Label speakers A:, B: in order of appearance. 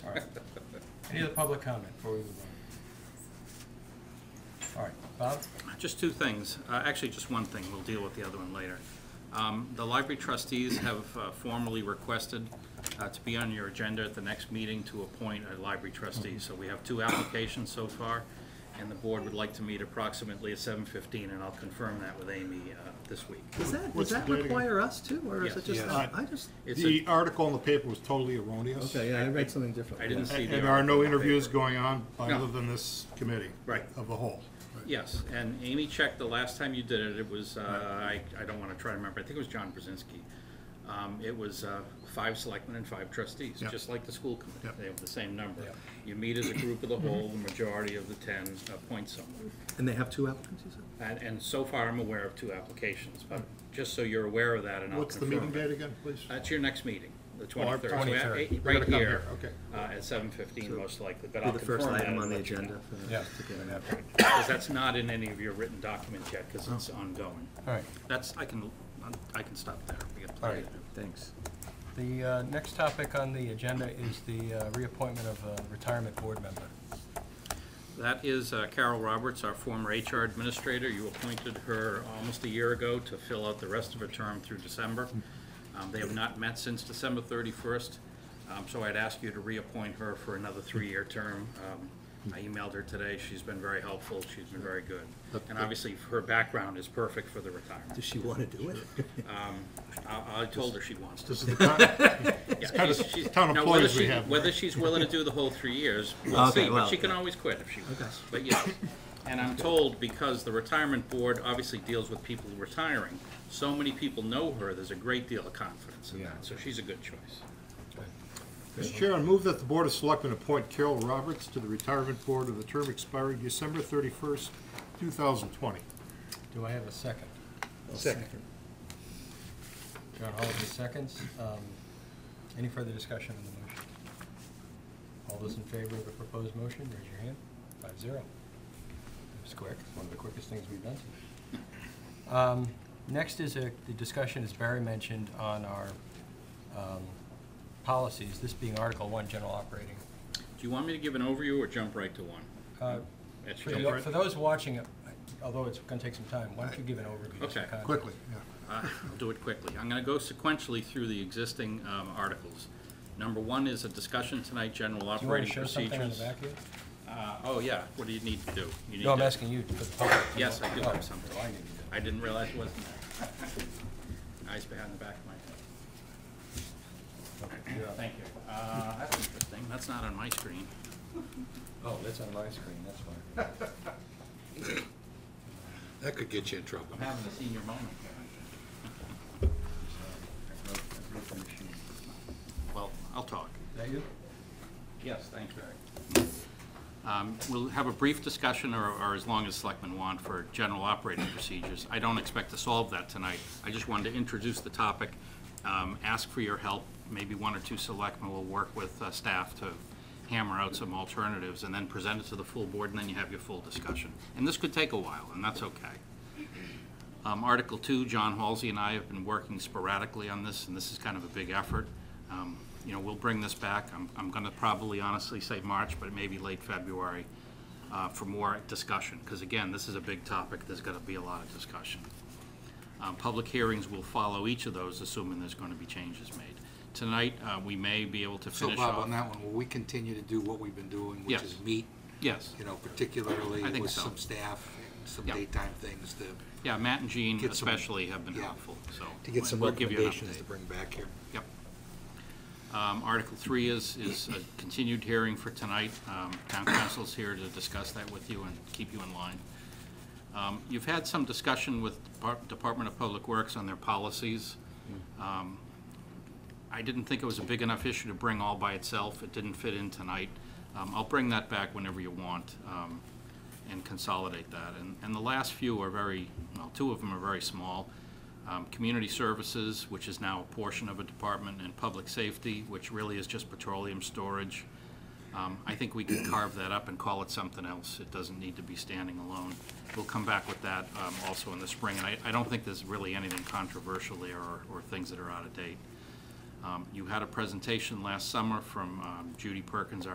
A: All right. Any other public comment before we move on? All right, Bob?
B: Just two things, Uh, actually, just one thing, we'll deal with the other one later. Um, The library trustees have uh, formally requested uh, to be on your agenda at the next meeting to appoint a library trustee. So we have two applications so far, and the board would like to meet approximately at 7:15, and I'll confirm that with Amy uh, this week.
C: Does that, does
D: What's the
C: that
D: date again?
C: require us to, or is
B: Yes.
C: it just,
D: Yes.
C: I just,
B: It's
D: The
B: a-
D: article in the paper was totally erroneous.
C: okay, yeah, I read something different.
B: I didn't see
D: And
B: the...
D: and there are
B: article
D: no
B: in the
D: interviews
B: paper.
D: going on
B: No.
D: other than this committee.
B: Right.
D: Of the whole.
B: Yes, and Amy checked the last time you did it, it was, uh, I, I don't want to try to remember, I think it was John Brzezinski. Um, It was uh, five selectmen and five trustees,
D: Yeah.
B: just like the school committee,
D: Yeah. Mm-hmm.
B: they have the same number.
A: Yeah.
B: You meet as a group of the whole, the majority of the ten appoint someone.
C: And they have two applicants, you said?
B: And, and so far, I'm aware of two applications, but just so you're aware of that and I'll
D: What's the
B: confirm.
D: meeting
B: it.
D: date again, please?
B: That's your next meeting, the
D: our
B: twenty-third. So we have
A: 23rd.
B: eight-
D: We're
B: Right
D: gonna come
B: here.
D: here, okay.
B: uh, At seven fifteen most likely, but
C: Be
B: I'll
C: the
B: confirm that.
C: first item
B: and
C: on the
B: let you know.
C: agenda for the
A: Yeah.
C: to get it.
B: Because that's not in any of your written documents yet, because it's
D: Oh.
B: ongoing.
A: All right,
B: That's, I can, I can stop there. We got plenty to
A: All
B: do.
C: Thanks.
A: the uh, next topic on the agenda is the uh, reappointment of a retirement board member.
B: That is uh, Carol Roberts, our former HR administrator. You appointed her almost a year ago to fill out the rest of her term through December. Um, They have not met since December 31st, um, so I'd ask you to reappoint her for another three-year term. Um, I emailed her today. She's been very helpful. She's been very good. And obviously, her background is perfect for the retirement.
C: Does she want to do it?
B: I I told her she wants to.
D: This is the con-
B: Yeah,
D: kind of
B: she's- she's-
D: town
B: now, whether
D: employees we
B: she-
D: have.
B: Whether she's willing to do the whole three years, we'll
C: Okay,
B: see, but
C: well,
B: she can
C: yeah.
B: always quit if she
C: Okay.
B: wants. But yes, and I'm told, because the retirement board obviously deals with people retiring, so many people know her, there's a great deal of confidence in
C: Yeah.
B: that, so she's a good choice.
D: Mr. Chair, I move that the Board of Selectmen appoint Carol Roberts to the Retirement Board of the term expiring December thirty-first, two thousand twenty.
A: Do I have a second?
D: Second.
A: John Holliday seconds. Um, Any further discussion on the motion? All those in favor of the proposed motion, raise your hand. Five zero. It was quick, one of the quickest things we've done today. Um, Next is a, the discussion, as Barry mentioned, on our um, policies, this being Article One, General Operating.
B: Do you want me to give an overview or jump right to one?
A: Uh,
B: That's
A: For
B: your-
A: the- for those watching, uh, although it's going to take some time, why don't you give an overview? just for
B: Okay.
A: context?
D: Quickly, yeah.
B: Uh, I'll do it quickly. I'm going to go sequentially through the existing um, articles. Number one is a discussion tonight, general
A: Do you want
B: operating
A: to show
B: procedures.
A: something on the back here?
B: Uh, Oh, yeah, what do you need to do? You need
A: No, I'm
B: to-
A: asking you for the public.
B: Yes, I do
A: Oh,
B: have something.
A: I need to do.
B: I didn't realize it wasn't there. Eyes behind the back of my head. Thank you. Uh, that's interesting, that's not on my screen.
A: Oh, that's on my screen, that's why.
E: That could get you in trouble.
B: I'm having a senior moment here. Well, I'll talk.
A: Is that you?
B: Yes, thanks, Eric. Um, We'll have a brief discussion, or or as long as selectmen want, for general operating procedures. I don't expect to solve that tonight. I just wanted to introduce the topic, um, ask for your help. Maybe one or two selectmen will work with uh, staff to hammer out some alternatives, and then present it to the full board, and then you have your full discussion. And this could take a while, and that's okay. Um, Article two, John Halsey and I have been working sporadically on this, and this is kind of a big effort. Um, You know, we'll bring this back, I'm, I'm gonna probably honestly say March, but it may be late February, uh, for more discussion, because again, this is a big topic, there's gonna be a lot of discussion. Um, Public hearings will follow each of those, assuming there's gonna be changes made. Tonight, uh, we may be able to
E: So
B: finish off.
E: Bob, on that one, will we continue to do what we've been doing, which
B: Yes.
E: is meet,
B: Yes,
E: you know, particularly
B: I think
E: with
B: so.
E: some staff, and some
B: Yeah.
E: daytime things to,
B: yeah, Matt and Jean
E: Get some-
B: especially have been
E: yeah.
B: helpful, so.
E: to get some
B: we'll give you an
E: recommendations
B: update.
E: to bring back here.
B: Yep. Um, Article three is, is a continued hearing for tonight. Um, Town council's here to discuss that with you and keep you in line. Um, You've had some discussion with Depart- Department of Public Works on their policies. Um, I didn't think it was a big enough issue to bring all by itself. It didn't fit in tonight. Um, I'll bring that back whenever you want um, and consolidate that. And, and the last few are very, well, two of them are very small. Um, Community Services, which is now a portion of a department, and Public Safety, which really is just petroleum storage. Um, I think we can carve that up and call it something else. It doesn't need to be standing alone. We'll come back with that um, also in the spring, and I, I don't think there's really anything controversial there or, or things that are out of date. Um, You had a presentation last summer from um, Judy Perkins, our